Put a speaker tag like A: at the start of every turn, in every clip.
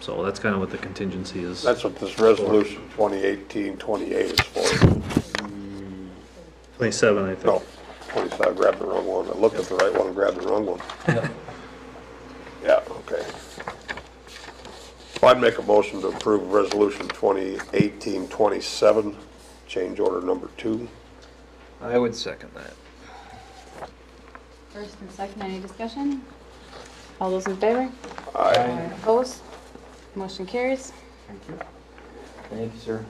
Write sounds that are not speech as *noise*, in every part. A: So that's kind of what the contingency is.
B: That's what this resolution 2018-28 is for.
A: Twenty-seven, I think.
B: No, 25, I grabbed the wrong one. I looked at the right one, and grabbed the wrong one. Yeah, okay. Well, I'd make a motion to approve resolution 2018-27, change order number two.
C: I would second that.
D: First and second, any discussion? All those in favor?
B: Aye.
D: Opposed? Motion carries.
C: Thank you. Thank you, sir.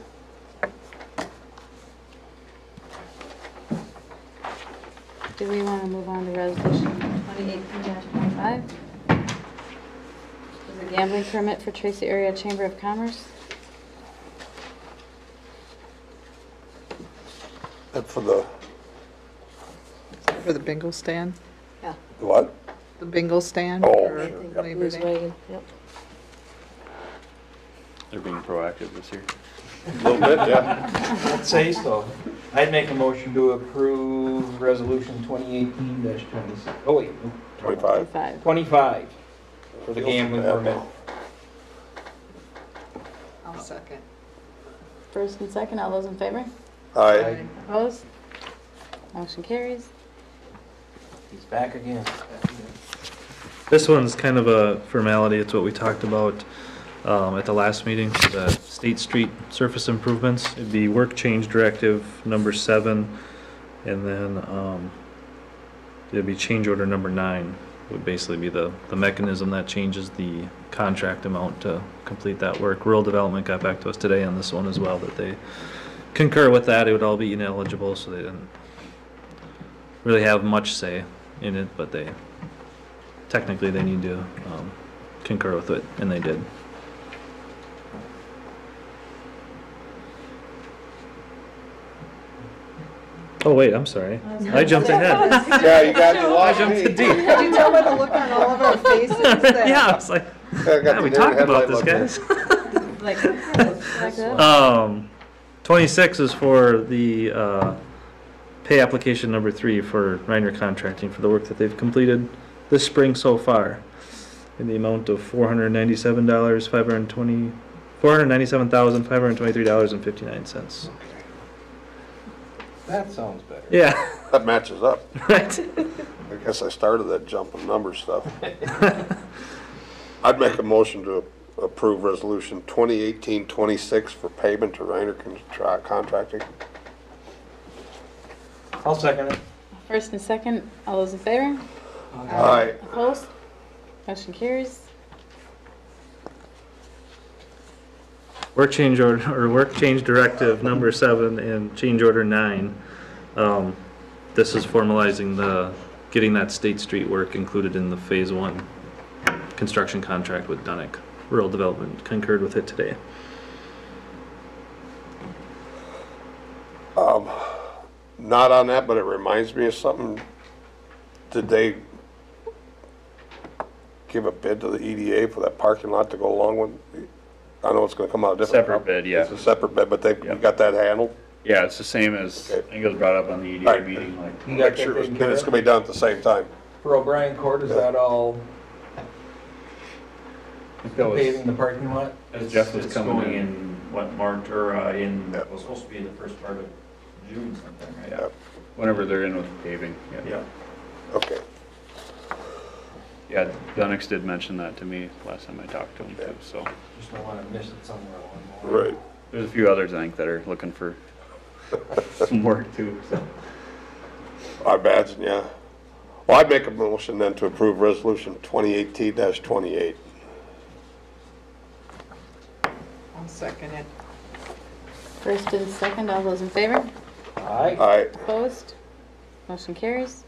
D: Do we want to move on to resolution 2018-25? Is a gambling permit for Tracy Area Chamber of Commerce?
B: And for the,
E: For the bingo stand,
F: Yeah,
B: what?
E: the bingo stand?
B: Oh,
E: for
B: sure, yep.
E: Labor
F: Bruce
E: Day.
F: Wagon, yep.
G: They're being proactive this year.
B: A little bit, yeah.
C: I'd say so. I'd make a motion to approve resolution 2018-26, oh wait, no,
B: 25.
D: Five.
C: 25 for the gambling permit.
E: I'll second.
D: First and second, all those in favor?
B: Aye.
D: Opposed? Motion carries.
C: He's back again.
A: This one's kind of a formality, it's what we talked about um, at the last meeting, for the State Street surface improvements. It'd be work change directive number seven, and then um, it'd be change order number nine, would basically be the, the mechanism that changes the contract amount to complete that work. Rural Development got back to us today on this one as well, that they concur with that, it would all be ineligible, so they didn't really have much say in it, but they technically they need to um, concur with it, and they did. Oh, wait, I'm sorry. I jumped ahead.
B: Yeah, you *laughs* got,
A: *laughs*
B: you
A: I
B: lost
A: jumped
B: me.
A: to D.
E: Did you tell by the look on all of our faces that?
A: *laughs* Yeah, I was like,
B: I got
A: yeah,
B: the
A: we
B: deer
A: talked about
B: headlight
A: this,
B: look there.
A: guys.
F: Like,
D: *laughs* Like that?
A: Um, twenty-six is for the, uh, pay application number three for Reiner Contracting for the work that they've completed this spring so far. In the amount of four hundred ninety-seven dollars, five hundred twenty, four hundred ninety-seven thousand, five hundred twenty-three dollars and fifty-nine cents.
C: That sounds better.
A: Yeah,
B: That matches up.
A: *laughs* right. *laughs*
B: I guess I started that jump in number stuff. *laughs* I'd make a motion to approve resolution 2018-26 for payment to Reiner Contra- Contracting.
C: I'll second it.
D: First and second, all those in favor?
B: Aye.
D: Opposed? Motion carries.
A: Work change order, or work change directive number seven and change order nine. Um, This is formalizing the, getting that State Street work included in the phase one construction contract with Dunick. Rural Development concurred with it today.
B: Not on that, but it reminds me of something. Did they give a bid to the EDA for that parking lot to go along with? I know it's gonna come out different.
G: Separate bid, yeah.
B: It's a separate bid, but they, you
G: Yep.
B: got that handled?
G: Yeah, it's the same as, I think it was brought up on the EDA
B: Alright.
G: meeting, like,
C: You got
B: Make
C: that
B: sure it's-
C: taken
B: And
C: care
B: it's
C: of?
B: gonna be done at the same time.
C: For O'Brien Court, is that all
G: I *laughs* think that was,
C: paving the parking lot?
G: as Jeff was
H: It's
G: coming
H: going
G: in.
H: in, what, March, or uh, in,
B: Yeah.
H: it was supposed to be in the first part of June sometime, right?
B: Yeah,
G: Whenever they're in with paving, yeah.
H: Yeah.
B: okay.
G: Yeah, Dunix did mention that to me last time I talked to him too, so.
C: Just don't want to miss it somewhere along the way.
B: *laughs* Right.
G: There's a few others, I think, that are looking for *laughs* some work too, so.
B: I imagine, yeah. Well, I'd make a motion then to approve resolution 2018-28.
E: I'll second it.
D: First and second, all those in favor?
C: Aye.
B: Aye.
D: Opposed? Motion carries.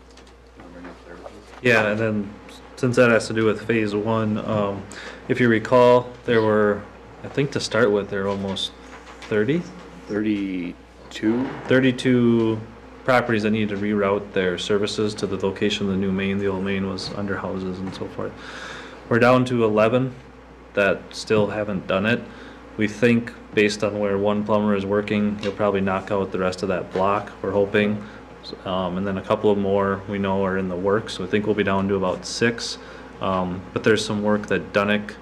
A: Yeah, and then since that has to do with phase one, um, if you recall, there were, I think to start with, there were almost 30,
G: Thirty-two?
A: 32 properties that needed to reroute their services to the location of the new main. The old main was under houses and so forth. We're down to 11 that still haven't done it. We think, based on where one plumber is working, he'll probably knock out the rest of that block, we're hoping. Um, And then a couple of more we know are in the works. We think we'll be down to about six. Um, But there's some work that Dunick